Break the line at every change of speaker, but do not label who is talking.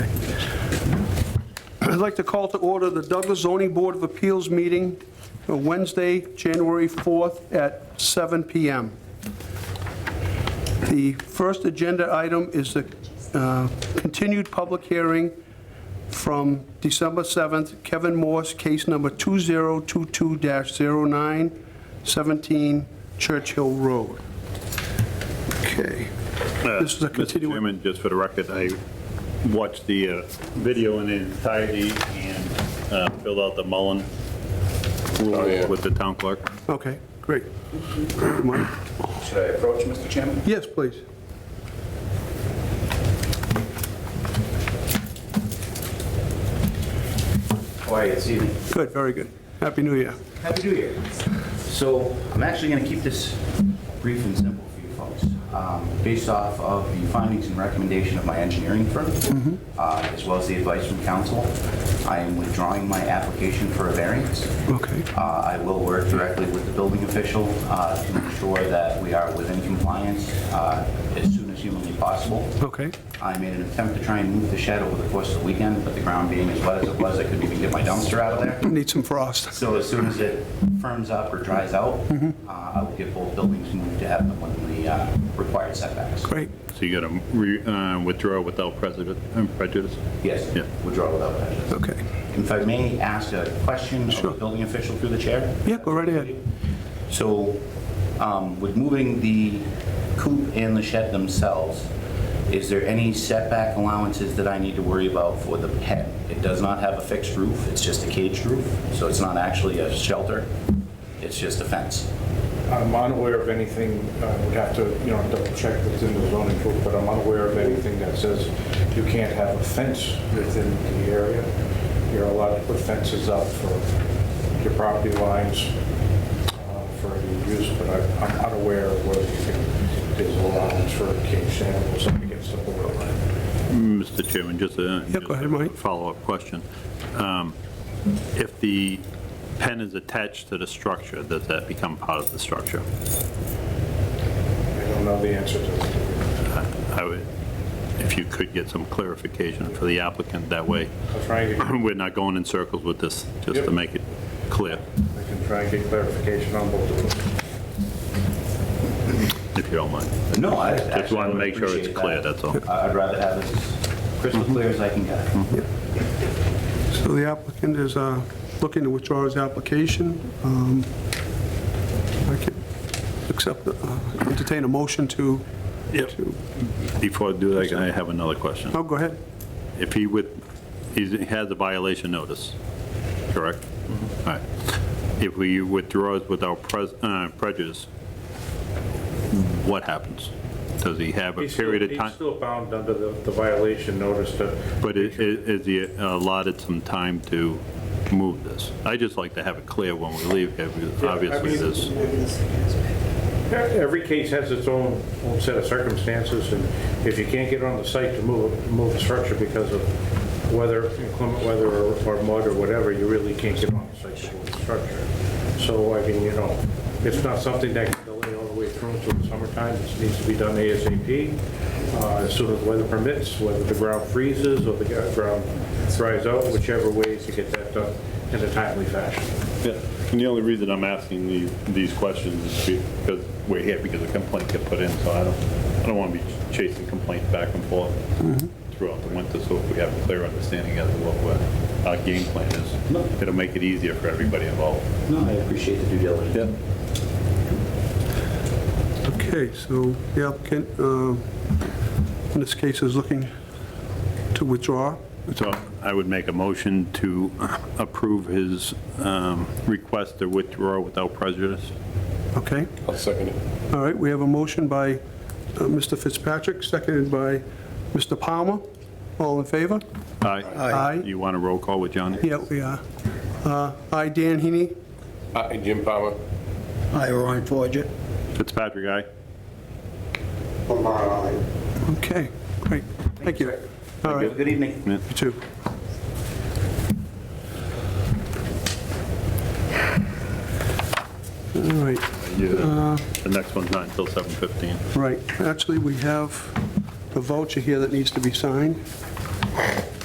like to call to order the Douglas Zoning Board of Appeals meeting for Wednesday, January 4th at 7 PM. The first agenda item is the uh, continued public hearing from December 7th, Kevin Morse, case number 2022-09, 17 Churchill Road. Okay. This is a
Mr.
continuing...
Chairman, just for the record, I watched the uh, video in entirety and uh, filled out the Mullen
Oh,
rule with the town clerk.
Okay, great. Mike?
Should I approach, Mr. Chairman?
Yes, please.
How are you this evening?
Good, very good. Happy New Year.
Happy New Year. So I'm actually going to keep this brief and simple for you folks. Um, Based off of the findings and recommendation of my engineering firm, uh, as well as the advice from council, I am withdrawing my application for a variance.
Okay.
Uh, I will work directly with the building official uh, to ensure that we are within compliance uh, as soon as humanly possible.
Okay.
I made an attempt to try and move the shed over the course of the weekend, but the ground being as wet as it was, I couldn't even get my dumpster out of there.
Need some frost.
So as soon as it firms up or dries out,
Mm-hmm.
uh, I will get both buildings moved to have them within the uh, required setbacks.
Great.
So you got to withdraw without precedent- uh, prejudice?
Yes,
Yeah.
withdraw without prejudice.
Okay.
If I may ask a question of the
Sure.
building official through the chair?
Yeah, go right ahead.
So um, with moving the coop and the shed themselves, is there any setback allowances that I need to worry about for the pen? It does not have a fixed roof, it's just a caged roof, so it's not actually a shelter, it's just a fence.
Uh, I'm unaware of anything, uh, would have to, you know, double check that's in the zoning book, but I'm unaware of anything that says you can't have a fence within the area. You're allowed to put fences up for your property lines uh, for your use, but I- I'm unaware of whether you can, there's allowance for caged animals up against the border line.
Mr. Chairman, just a.
Yeah, go ahead, Mike.
Follow-up question. Um, If the pen is attached to the structure, does that become part of the structure?
I don't know the answer to that.
Uh, I would, if you could get some clarification for the applicant, that way
I'll try and get, I
we're not going in circles with this, just to
Yep.
make it clear,
can try and get clarification on both of them.
if you don't mind.
No, I
Just wanted to make sure it's clear, that's all.
I- I'd rather have it as crystal clear as I can get it.
So the applicant is uh, looking to withdraw his application. Um, I can accept, uh, entertain a motion to...
Yep.
to-
Before I do that, I have another question.
Oh, go ahead.
If he would, he's- he has a violation notice, correct?
Mm-hmm.
All right. If we withdraw it without pres- uh, prejudice, what happens? Does he have a
He's
period
still-
of time?
He's still bound under the the violation notice to
But i- i- is he allotted some time to move this? I just like to have it clear when we leave, here, because
Yeah, I
obviously
mean-
this,
Every case has its own, own set of circumstances, and if you can't get on the site to move, move a structure because of weather, inclement weather or or mud or whatever, you really can't get on the site to move the structure. So, I mean, you know, it's not something that can delay all the way through until the summertime, it needs to be done ASAP, uh, as soon as weather permits, whether the ground freezes or the ground dries out, whichever ways to get that done in a timely fashion.
Yeah, and the only reason I'm asking the- these questions is because we're here, because a complaint got put in, so I don't, I don't want to be chasing complaints back and forth throughout the winter, so if we have a clear understanding as to what we're- our game plan
No.
is, it'll make it easier for everybody involved.
No, I appreciate the due diligence.
Yeah.
Okay, so the applicant, uh, in this case, is looking to withdraw.
So I would make a motion to approve his um, request to withdraw without prejudice.
Okay?
I'll second it.
All right, we have a motion by uh, Mr. Fitzpatrick, seconded by Mr. Palmer. All in favor?
Aye.
Aye.
You want a roll call with Johnny?
Yeah, we are. Uh, Aye, Dan Heaney?
Aye, Jim Palmer.
Hi, Ryan Forget.
Fitzpatrick, aye?
Okay, great. Thank you. All right,
Have a Good evening.
you too. All right,
Yeah. The next one's not until 7:15.
right. Actually, we have a voucher here that needs to be signed.